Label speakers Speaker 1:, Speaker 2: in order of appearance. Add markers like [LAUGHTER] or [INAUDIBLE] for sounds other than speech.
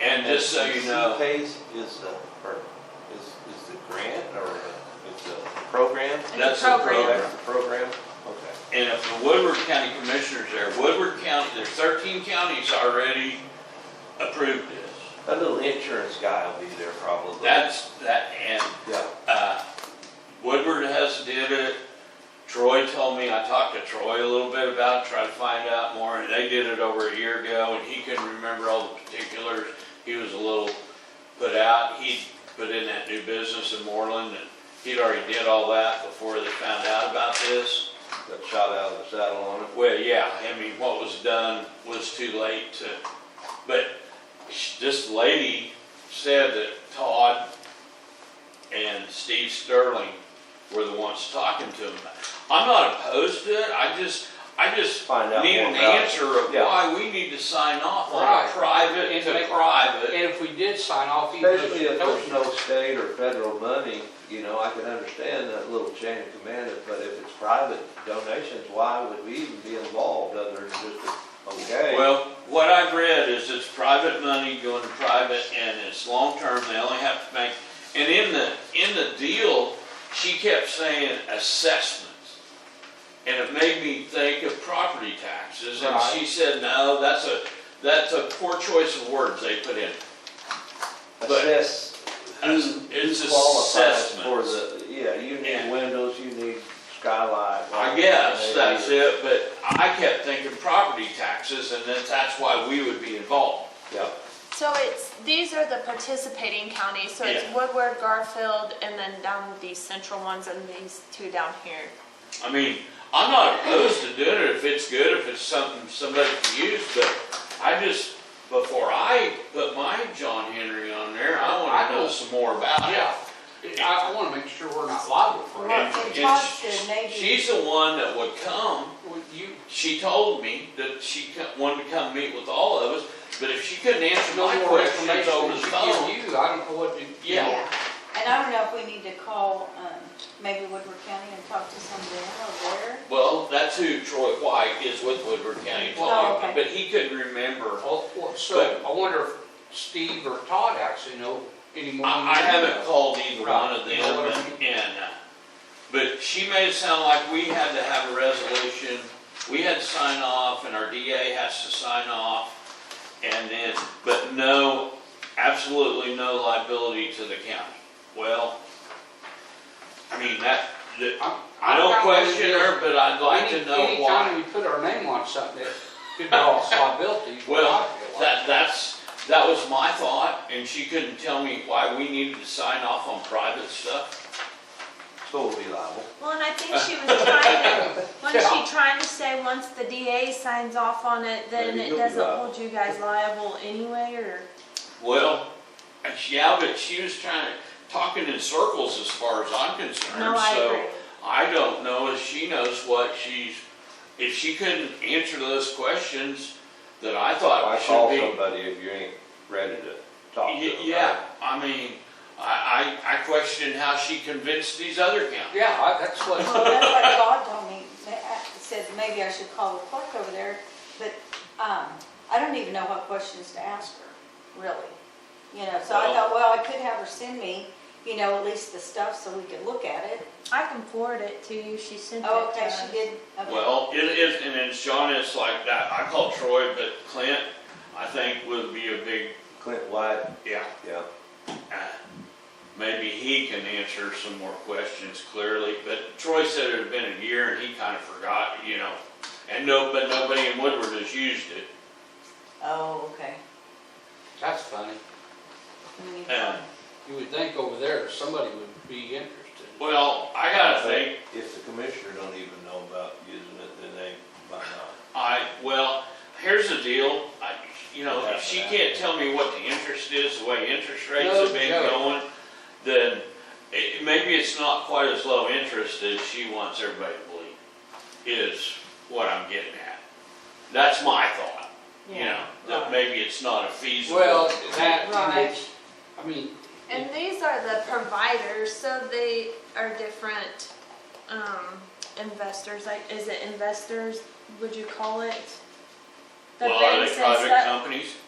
Speaker 1: And just so you know,
Speaker 2: CPACE is the, or is, is the grant or is the program? Oh,
Speaker 1: That's
Speaker 3: the
Speaker 1: the
Speaker 3: program.
Speaker 1: program.
Speaker 2: That's the program? Okay.
Speaker 1: And if the Woodward County Commissioners there, Woodward County, there's thirteen counties already approved this.
Speaker 2: That little insurance guy will be there probably.
Speaker 1: That's, that, and,
Speaker 2: Yeah.
Speaker 1: uh, Woodward has did it. Troy told me, I talked to Troy a little bit about, it, tried to find out more, and they did it over a year ago, and he couldn't remember all the particulars. He was a little put out, he put in that new business in Moreland, and he'd already did all that before they found out about this.
Speaker 2: Got shot out of the saddle on it.
Speaker 1: Well, yeah, I mean, what was done was too late to, but sh- this lady said that Todd and Steve Sterling were the ones talking to him. I'm not opposed to it, I just, I just
Speaker 2: Find out
Speaker 1: need
Speaker 2: more
Speaker 1: an
Speaker 2: about it.
Speaker 1: answer of
Speaker 2: Yeah.
Speaker 1: why we need to sign off on
Speaker 4: Right.
Speaker 1: a private
Speaker 4: And
Speaker 1: to
Speaker 4: make-
Speaker 1: private.
Speaker 4: And if we did sign off, even if
Speaker 2: Especially
Speaker 4: it
Speaker 2: if
Speaker 4: was
Speaker 2: there's no state or federal money, you know, I can understand that little chain of command, but if it's private donations, why would we even be involved other than just, a- okay?
Speaker 1: Well, what I've read is it's private money going to private and it's long-term, they only have to make, and in the, in the deal, she kept saying assessments. And it made me think of property taxes and
Speaker 4: Right.
Speaker 1: she said, no, that's a, that's a poor choice of words they put in. but-
Speaker 2: Assess
Speaker 1: It's it's
Speaker 2: who qualifies for
Speaker 1: assessments.
Speaker 2: the, yeah, you
Speaker 1: Yeah.
Speaker 2: need windows, you need skylight.
Speaker 1: I guess that's it, but I kept thinking property taxes and that, that's why we would be involved.
Speaker 2: Yeah,
Speaker 3: So it's, these are the participating counties, so it's
Speaker 1: Yeah.
Speaker 3: Woodward, Garfield, and then down these central ones and these two down here.
Speaker 1: I mean, I'm not opposed to doing it if it's good, if it's something somebody can use, but I just, before I put my John Henry on there, I
Speaker 4: I
Speaker 1: wanna know
Speaker 4: don't-
Speaker 1: some more about it.
Speaker 4: Yeah, I, I wanna make sure we're not liable for
Speaker 5: Right.
Speaker 4: it.
Speaker 1: And-
Speaker 5: Well,
Speaker 1: and
Speaker 5: it talks to maybe-
Speaker 1: She's the one that would come,
Speaker 4: Well, You,
Speaker 1: she told me that she co- wanted to come meet with all of us, but if she couldn't answer
Speaker 4: no
Speaker 1: my
Speaker 4: more
Speaker 1: questions
Speaker 4: information
Speaker 1: over
Speaker 4: than
Speaker 1: the
Speaker 4: she
Speaker 1: phone,
Speaker 4: give you, I don't know what to.
Speaker 1: yeah.
Speaker 5: And I don't know if we need to call, um, maybe Woodward County and talk to somebody over there.
Speaker 1: Well, that's who Troy White is with Woodward County,
Speaker 5: Oh,
Speaker 1: told me,
Speaker 5: okay.
Speaker 1: but he couldn't remember.
Speaker 4: Well, well, So, I wonder if Steve or Todd actually know any more. than
Speaker 1: I, I
Speaker 4: you
Speaker 1: haven't
Speaker 4: know.
Speaker 1: called either
Speaker 4: Right.
Speaker 1: one of
Speaker 4: You know
Speaker 1: them,
Speaker 4: what I
Speaker 1: and, and, uh, but she made it sound like we had to have a resolution, we had to sign off, and our DA has to sign off, and then, but no, absolutely no liability to the county. Well, I mean, that, that,
Speaker 4: I'm-
Speaker 1: I
Speaker 4: I'm
Speaker 1: don't
Speaker 4: kinda with
Speaker 1: question
Speaker 4: you.
Speaker 1: her, but I'd like
Speaker 4: Any-
Speaker 1: to know
Speaker 4: Anytime
Speaker 1: why.
Speaker 4: we put our name on something, it
Speaker 1: [LAUGHS]
Speaker 4: could be all liability. is what
Speaker 1: Well,
Speaker 4: I feel like.
Speaker 1: that, that's, that was my thought, and she couldn't tell me why we needed to sign off on private stuff.
Speaker 2: so we'll be liable.
Speaker 3: Well, and I think she was
Speaker 1: [LAUGHS]
Speaker 3: trying to, wasn't she trying to say, once the DA signs off on it, then
Speaker 2: Maybe
Speaker 3: it
Speaker 2: you'll be
Speaker 3: doesn't
Speaker 2: liable.
Speaker 3: hold you guys liable anyway, or?
Speaker 1: Well, yeah, but she was trying, to talking in circles as far as I'm
Speaker 3: No,
Speaker 1: concerned,
Speaker 3: I
Speaker 1: so
Speaker 3: agree.
Speaker 1: I don't know if she knows what she's, if she couldn't answer those questions that I
Speaker 2: Why
Speaker 1: thought
Speaker 2: call
Speaker 1: should be.
Speaker 2: somebody if you ain't ready to talk to
Speaker 1: Y-
Speaker 2: them?
Speaker 1: Yeah, I mean, I, I, I question how she convinced these other counties.
Speaker 4: Yeah, I- that's what,
Speaker 5: Well, that's what God told me, They- I said maybe I should call the clerk over there, but, um, I don't even know what questions to ask her, really. You know, so I
Speaker 1: Well-
Speaker 5: thought, well, I could have her send me, you know, at least the stuff so we could look at it.
Speaker 3: I can forward it to you, she sent it to
Speaker 5: Oh,
Speaker 3: us.
Speaker 5: okay, she did, okay.
Speaker 1: Well, it is, and it's John, it's like that, I call Troy, but Clint, I think would be a big,
Speaker 2: Clint White,
Speaker 1: yeah,
Speaker 2: yeah.
Speaker 1: Uh, Maybe he can answer some more questions clearly, but Troy said it had been a year and he kind of forgot, you know. And no, but nobody in Woodward has used it.
Speaker 5: Oh, okay.
Speaker 4: that's funny.
Speaker 5: We need to-
Speaker 1: Uh,
Speaker 4: You would think over there, somebody would be interested.
Speaker 1: Well, I gotta think,
Speaker 2: If the commissioner don't even know about using it, then they might not.
Speaker 1: I, well, here's the deal, I, you know, if she can't tell me what the interest is, the way interest rates have been
Speaker 4: No joke.
Speaker 1: going, then it, maybe it's not quite as low interest as she wants everybody to believe, is what I'm getting at. That's my thought. you know, that
Speaker 5: Right.
Speaker 1: maybe it's not a feasible.
Speaker 4: Well, that, and
Speaker 3: Right.
Speaker 4: it's- I mean,
Speaker 3: And these are the providers, so they are different um, investors. Like, is it investors? Would you call it? The
Speaker 1: Well, are
Speaker 3: banks
Speaker 1: they
Speaker 3: and
Speaker 1: private
Speaker 3: stuff-
Speaker 1: companies?